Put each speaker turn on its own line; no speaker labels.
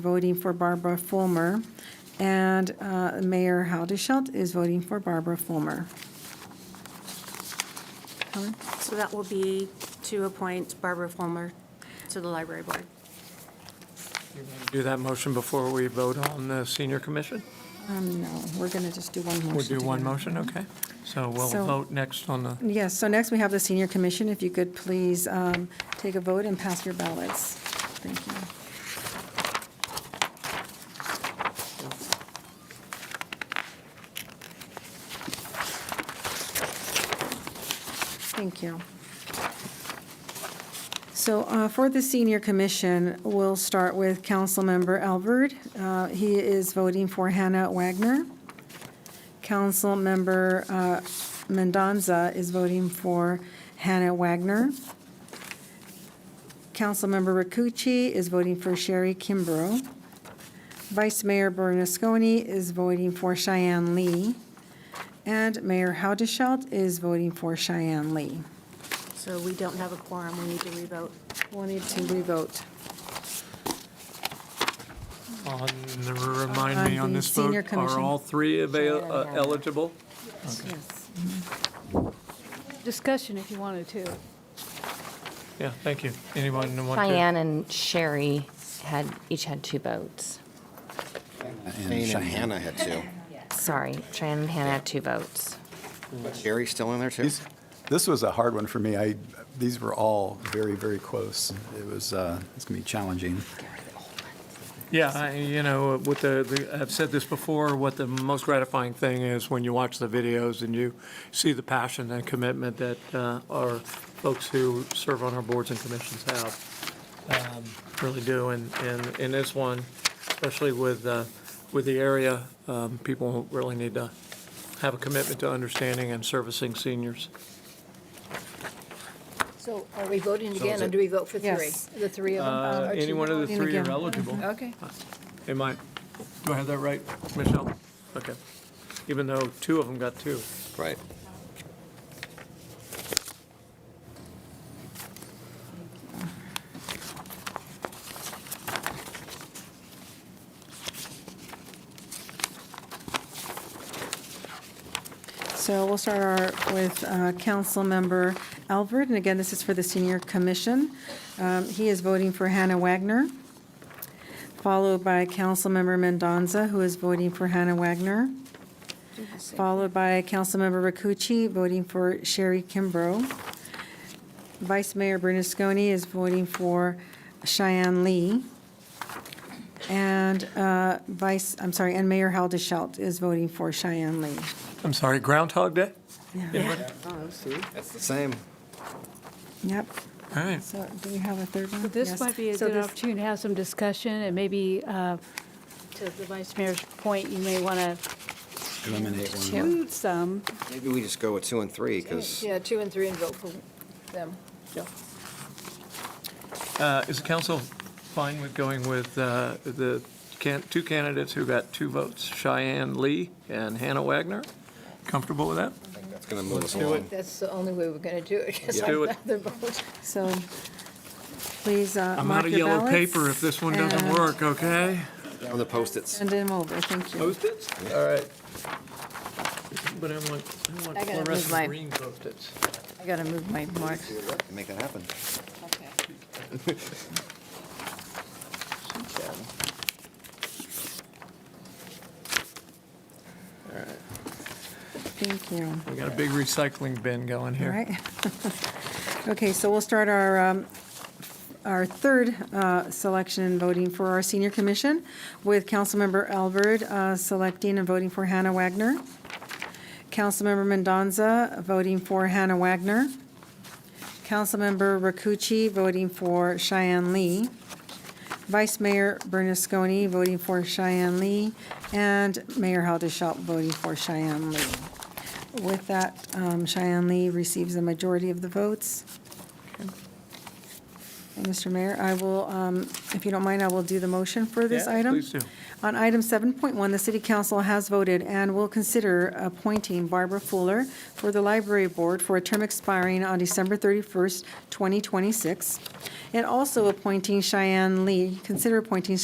voting for Barbara Fulmer, and uh, Mayor Haldeshelt is voting for Barbara Fulmer. Helen?
So that will be to appoint Barbara Fulmer to the library board.
Do that motion before we vote on the senior commission?
Um, No, we're going to just do one motion.
We'll do one
together.
motion, okay? So we'll
So-
vote next on the,
Yes, so next we have the Senior Commission. If you could please um, take a vote and pass your ballots. Thank you. Thank you. So uh, for the Senior Commission, we'll start with Councilmember Albert. Uh, He is voting for Hannah Wagner. Councilmember uh, Mendoza is voting for Hannah Wagner. Councilmember Rakucci is voting for Sherry Kimbrough. Vice Mayor Bernasconi is voting for Cheyenne Lee. And Mayor Haudashelt is voting for Cheyenne Lee.
So we don't have a quorum, we need to revote.
Wanted to revote.
on, the- remind me
On
on
the
this vote,
senior
are
commission.
all three avail- uh, eligible?
discussion if you wanted to.
Yeah, thank you. Anyone want to?
Cheyenne and Sherry had, each had two votes.
And Shanna had two.
Sorry, Cheyenne and Hannah had two votes.
Sherry's still in there too?
These- This was a hard one for me. I, these were all very, very close. It was, uh, it's going to be challenging.
Yeah, I- you know, what the, the- I've said this before, what the most gratifying thing is when you watch the videos and you see the passion and commitment that uh, our folks who serve on our boards and commissions have, um, really do. And, and in this one, especially with, uh, with the area, um, people really need to have a commitment to understanding and servicing seniors.
So are we voting
is
again, or
it-
do we vote for three?
Yes.
The three of them?
Uh,
Or two?
Any one of the
voting
three are
again?
eligible.
Okay.
Am I, do I have that right, Michelle? Okay. Even though two of them got two.
Right.
So we'll start our- with uh, Councilmember Albert, and again, this is for the Senior Commission. Um, He is voting for Hannah Wagner, followed by Councilmember Mendoza, who is voting for Hannah Wagner, followed by Councilmember Rakucci, voting for Sherry Kimbrough. Vice Mayor Bernasconi is voting for Cheyenne Lee, and uh, Vice, I'm sorry, and Mayor Haldeshelt is voting for Cheyenne Lee.
I'm sorry, Groundhog Day?
That's the same.
Yep.
All right.
So do we have a third one?
So this
Yes.
might be a
So
good
this-
opportunity to have some discussion, and maybe, uh, to the vice mayor's point, you may want to
Eliminate one.
include some.
Maybe we just go with two and three because
Yeah, two and three and vote for them.
Uh, Is the council fine with going with uh, the can- two candidates who got two votes, Cheyenne Lee and Hannah Wagner? Comfortable with that?
that's going to move us
do
along.
That's the only way we're going to do it,
Let's do it.
So please uh,
I'm out
mark
of
your
yellow
ballots.
paper if this one doesn't
and
work, okay?
Down the post-its.
Send them over, thank you.
Post-its? All right. But I want, I want
I gotta move
fluorescent
my-
green post-its.
I gotta move my marks.
Make that happen.
Thank you.
We got a big recycling bin going
All
here.
right. Okay, so we'll start our, um, our third uh, selection and voting for our senior commission with Councilmember Albert uh, selecting and voting for Hannah Wagner. Councilmember Mendoza voting for Hannah Wagner. Councilmember Rakucci voting for Cheyenne Lee. Vice Mayor Bernasconi voting for Cheyenne Lee. And Mayor Haldeshelt voting for Cheyenne Lee. With that, um, Cheyenne Lee receives a majority of the votes. And Mr. Mayor, I will, um, if you don't mind, I will do the motion for this
Yeah,
item.
please do.
On item 7.1, the city council has voted and will consider appointing Barbara Fuller for the library board for a term expiring on December 31st, 2026, and also appointing Cheyenne Lee, consider appointing